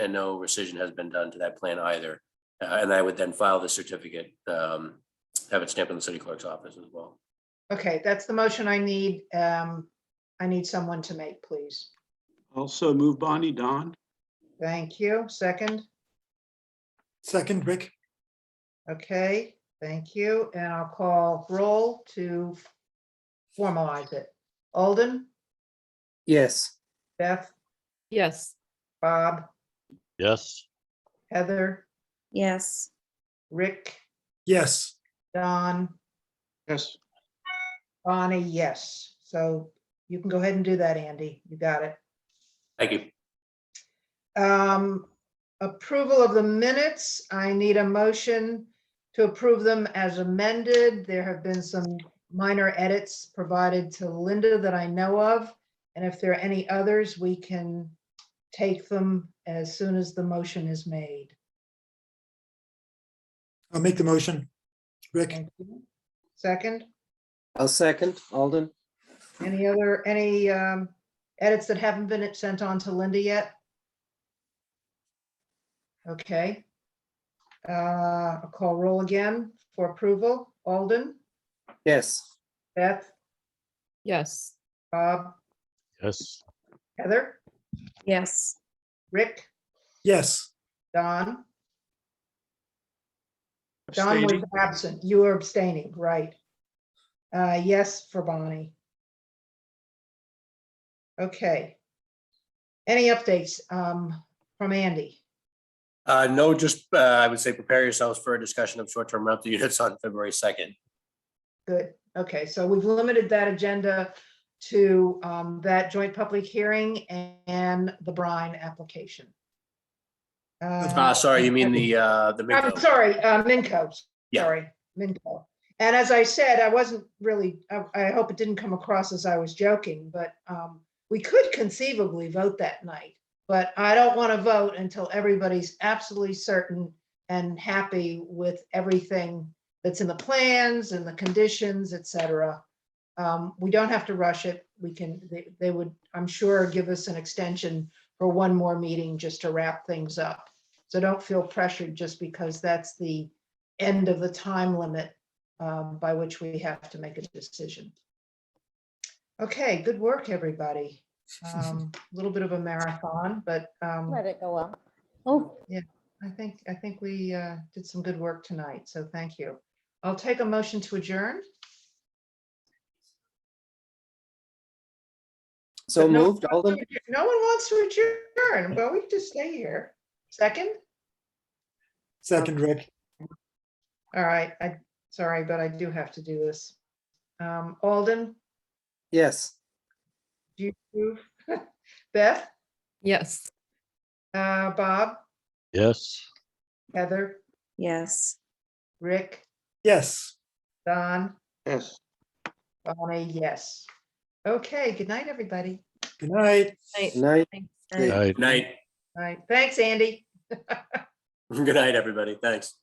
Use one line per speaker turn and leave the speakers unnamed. and no rescission has been done to that plan either. Uh, And I would then file the certificate, um, have it stamped in the city clerk's office as well.
Okay, that's the motion I need. Um, I need someone to make, please.
Also move Bonnie, Don?
Thank you. Second,
Second, Rick?
okay, thank you. And I'll call roll to formalize it. Alden,
yes,
Beth,
yes,
Bob,
yes,
Heather,
yes,
Rick,
Yes,
Don,
Yes.
Bonnie, yes. So you can go ahead and do that, Andy. You got it.
Thank you.
Um, approval of the minutes, I need a motion to approve them as amended. There have been some minor edits provided to Linda that I know of. And if there are any others, we can take them as soon as the motion is made.
I'll make the motion. Rick?
Thank you. Second,
I'll second, Alden,
any other, any um, edits that haven't been sent on to Linda yet? Okay. Uh, I'll call roll again for approval. Alden?
yes,
Beth,
yes,
Bob,
yes,
Heather,
yes,
Rick,
Yes,
Don. Don was absent. You were abstaining, right? Uh, yes for Bonnie. Okay. Any updates, um, from Andy?
Uh, no, just, uh, I would say prepare yourselves for a discussion of short-term rental units on February second.
Good. Okay, so we've limited that agenda to, um, that joint public hearing and the brine application.
Uh, sorry, you mean the, uh, the.
I'm sorry, uh, Minco,
Yeah.
sorry, Minco. And as I said, I wasn't really, I, I hope it didn't come across as I was joking, but um, we could conceivably vote that night. But I don't want to vote until everybody's absolutely certain and happy with everything that's in the plans and the conditions, et cetera. Um, we don't have to rush it. We can, they, they would, I'm sure, give us an extension for one more meeting just to wrap things up. So don't feel pressured just because that's the end of the time limit um, by which we have to make a decision. Okay, good work, everybody. Um, A Little bit of a marathon, but um,
Let it go up. Oh,
I think, I think we uh, did some good work tonight, so thank you. I'll take a motion to adjourn.
so
But no-
moved, Alden,
No one wants to adjourn. Well, we can just stay here. Second?
second, Rick?
All right, I, sorry, but I do have to do this. Um, Alden,
yes.
do you approve? Beth?
yes.
Uh, Bob,
yes.
Heather,
yes.
Rick,
Yes.
Don,
Yes.
Bonnie, yes. Okay, good night, everybody.
Good night.
Good Night,
Thanks.
I-
Night.
All right, thanks, Andy.
Good night, everybody. Thanks.